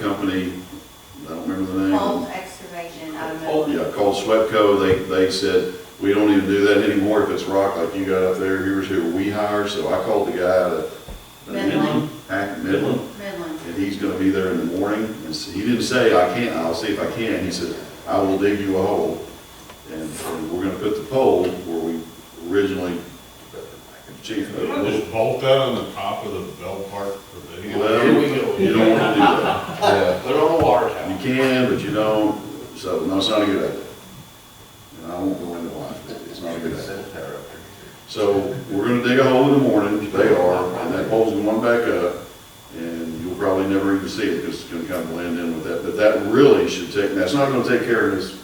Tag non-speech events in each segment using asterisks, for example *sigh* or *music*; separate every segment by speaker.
Speaker 1: company, I don't remember the name.
Speaker 2: Cold excavation, I don't
Speaker 1: Oh,
Speaker 2: know.
Speaker 1: yeah, called Swepco, they, they said, we don't even do that anymore if it's rock like you got up there, here's who we hire, so I called the guy at
Speaker 2: Midland.
Speaker 1: Hack Midland,
Speaker 2: Midland.
Speaker 1: and he's gonna be there in the morning, and so he didn't say, I can't, I'll see if I can, he said, I will dig you a hole, and and we're gonna put the pole where we originally, uh, chief,
Speaker 3: Can I
Speaker 1: well,
Speaker 3: just bolt that on the top of the bell part for the hill?
Speaker 4: Here we go.
Speaker 1: you don't wanna do that. Yeah.
Speaker 4: Put it on the water tower.
Speaker 1: You can, but you don't, so, no, it's not a good idea. And I won't go into why, but it's not a good idea. So, we're gonna dig a hole in the morning, they are, and that pole's going back up, and you'll probably never even see it, because it's gonna kind of blend in with that, but that really should take, that's not gonna take care of Miss,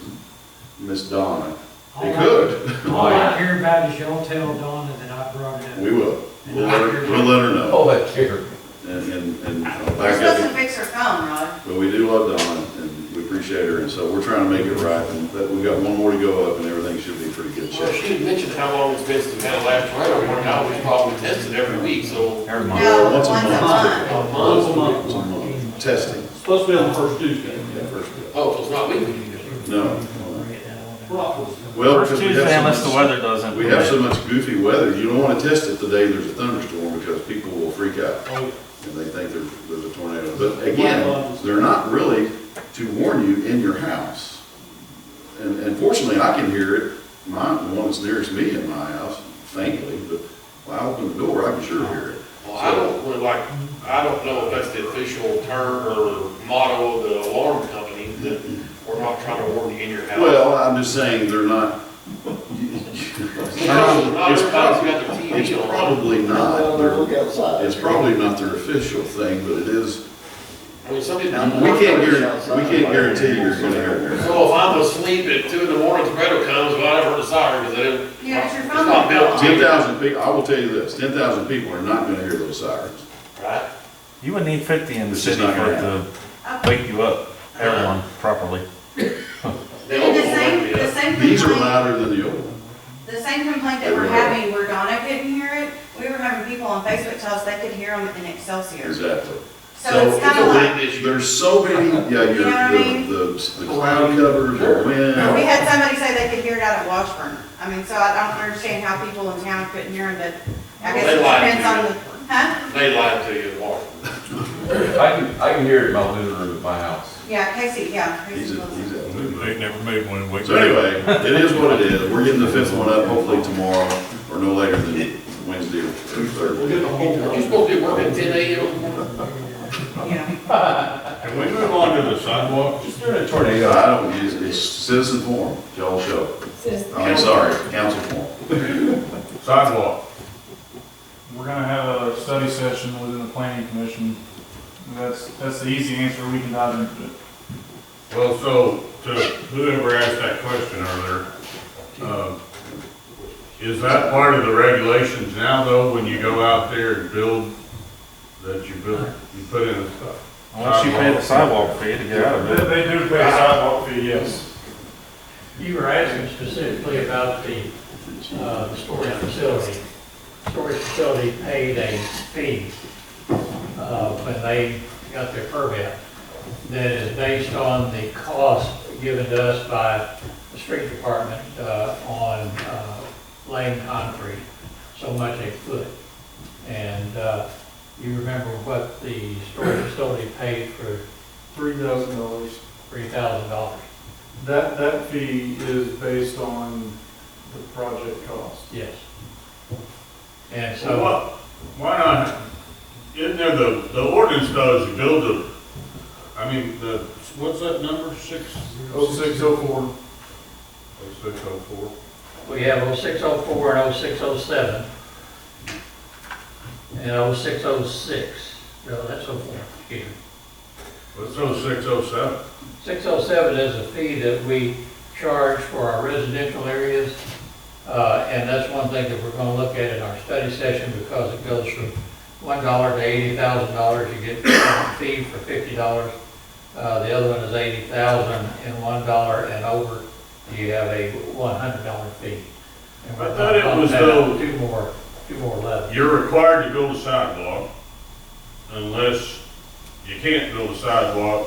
Speaker 1: Miss Donna. It could,
Speaker 5: All Oh, I care about is y'all tell Donna that I brought it
Speaker 1: we
Speaker 5: up.
Speaker 1: will, we'll let her, we'll let her know,
Speaker 6: Oh, that's here.
Speaker 1: and, and, and I'll
Speaker 2: We're
Speaker 1: back up.
Speaker 2: supposed to fix her phone, Rod.
Speaker 1: But we do love Dawn, and we appreciate her, and so we're trying to make it right, and that, we've got one more to go up, and everything should be pretty good
Speaker 4: Well,
Speaker 1: shape.
Speaker 4: she mentioned how long it's been since we had a last trailer, we're now, we probably test it every week, so.
Speaker 7: Every month.
Speaker 2: No,
Speaker 1: once
Speaker 2: once
Speaker 1: a
Speaker 2: a
Speaker 1: month.
Speaker 2: month.
Speaker 4: A month.
Speaker 1: It's a month. Testing.
Speaker 8: Supposed to be on the first Tuesday.
Speaker 1: Yeah, first go.
Speaker 4: Oh, so it's not weekly, you know.
Speaker 1: No. Well,
Speaker 7: First
Speaker 1: because we have
Speaker 7: Tuesday unless
Speaker 1: so
Speaker 7: the
Speaker 1: much-
Speaker 7: weather doesn't.
Speaker 1: We have
Speaker 7: permit.
Speaker 1: so much goofy weather, you don't wanna test it the day there's a thunderstorm, because people will freak out,
Speaker 3: Oh,
Speaker 1: and they think there's, there's a tornado. But again, they're not really to warn you in your house. And, and fortunately, I can hear it, my, the one that's nearest me in my house faintly, but when I open the door, I can sure hear it.
Speaker 4: Well, I don't, really like, I don't know if that's the official term or motto of the alarm company, that we're not trying to warn you in your house.
Speaker 1: Well, I'm just saying they're not. *laughs*
Speaker 4: You know, Not everybody's got their
Speaker 1: It's
Speaker 4: TV on.
Speaker 1: um, probably not,
Speaker 8: Look
Speaker 1: their-
Speaker 8: outside.
Speaker 1: it's probably not their official thing, but it is,
Speaker 4: I mean, some
Speaker 1: Um, we
Speaker 4: people.
Speaker 1: can't guarantee, we can't guarantee you're gonna hear it.
Speaker 4: So if I'm asleep at two in the morning, tornado comes, well, I never desire, because I didn't.
Speaker 2: Yeah, it's your
Speaker 4: It's not built to.
Speaker 1: Ten thousand people, I will tell you this, ten thousand people are not gonna hear those sirens.
Speaker 4: Right?
Speaker 7: You would need fifty in the
Speaker 1: This is
Speaker 7: city
Speaker 1: not
Speaker 7: for
Speaker 1: gonna
Speaker 7: it to wake you up, everyone properly.
Speaker 4: They
Speaker 2: And the
Speaker 4: don't want
Speaker 2: same,
Speaker 4: to be
Speaker 2: the
Speaker 4: up.
Speaker 2: same
Speaker 1: These are
Speaker 2: complaint,
Speaker 1: louder than the old ones.
Speaker 2: the same complaint that we're
Speaker 1: Everywhere.
Speaker 2: having where Donna couldn't hear it, we were having people on Facebook tell us they could hear them in Excelsior.
Speaker 1: Exactly.
Speaker 2: So it's kind of like,
Speaker 4: Wind issue.
Speaker 1: There's so many, yeah,
Speaker 2: You know what I
Speaker 1: your,
Speaker 2: mean?
Speaker 1: the, the the cloud covers, the
Speaker 2: we
Speaker 1: wind.
Speaker 2: had somebody say they could hear it out at Washburn. I mean, so I don't understand how people in town couldn't hear them, but I
Speaker 4: Well,
Speaker 2: guess
Speaker 4: they
Speaker 2: it
Speaker 4: lied to
Speaker 2: depends on
Speaker 4: you.
Speaker 2: the, huh?
Speaker 4: They lied to you, in March.
Speaker 6: I can, I can hear it in my living room at my house.
Speaker 2: Yeah, Casey, yeah.
Speaker 1: He's,
Speaker 2: Casey
Speaker 1: a-
Speaker 2: Wilson.
Speaker 1: he's out.
Speaker 3: They never made one wake.
Speaker 1: So anyway, it is what it is. We're getting the fifth one up hopefully tomorrow or no later than Wednesday or Thursday.
Speaker 8: get the whole
Speaker 4: Aren't you supposed to be working ten AM?
Speaker 2: Yeah.
Speaker 3: Can we move on to the sidewalk?
Speaker 6: Just during a tornado,
Speaker 1: I don't, it's, it's citizen forum, y'all show. I'm sorry, council forum.
Speaker 3: Sidewalk.
Speaker 9: We're gonna have a study session within the planning commission. That's, that's the easy answer, we can dive into it.
Speaker 3: Well, so to whoever asked that question earlier, um, is that part of the regulations now though, when you go out there and build, that you build, you put in the stuff?
Speaker 7: Unless you pay the sidewalk fee to get out of it.
Speaker 9: They, they do pay a sidewalk fee, yes.
Speaker 5: You were asking specifically about the, uh, the storage facility. Storage facility paid a fee, uh, when they got their permit. That is based on the cost given to us by the street department, uh, on, uh, laying concrete, so much a foot. And, uh, you remember what the storage facility paid for
Speaker 9: Three thousand dollars.
Speaker 5: three thousand dollars?
Speaker 9: That, that fee is based on the project cost.
Speaker 5: Yes. And
Speaker 3: So
Speaker 5: so,
Speaker 3: what, why not, isn't there the, the ordinance does you build a, I mean, the, what's that number, six?
Speaker 9: Oh, six, oh, four.
Speaker 3: Oh, six oh four.
Speaker 5: we have 0604 and 0607 and 0606, no, that's 04, excuse me.
Speaker 3: Let's throw six oh seven.
Speaker 5: 607 is a fee that we charge for our residential areas, uh, and that's one thing that we're going to look at in our study session because it goes from $1 to $80,000, you get a fee for $50. Uh, The other one is $80,000 and $1 and over, you have a $100 fee. And we're
Speaker 3: I thought it
Speaker 5: gonna
Speaker 3: was
Speaker 5: bump that up
Speaker 3: though-
Speaker 5: Two more, two more left.
Speaker 3: You're required to build a sidewalk unless you can't build a sidewalk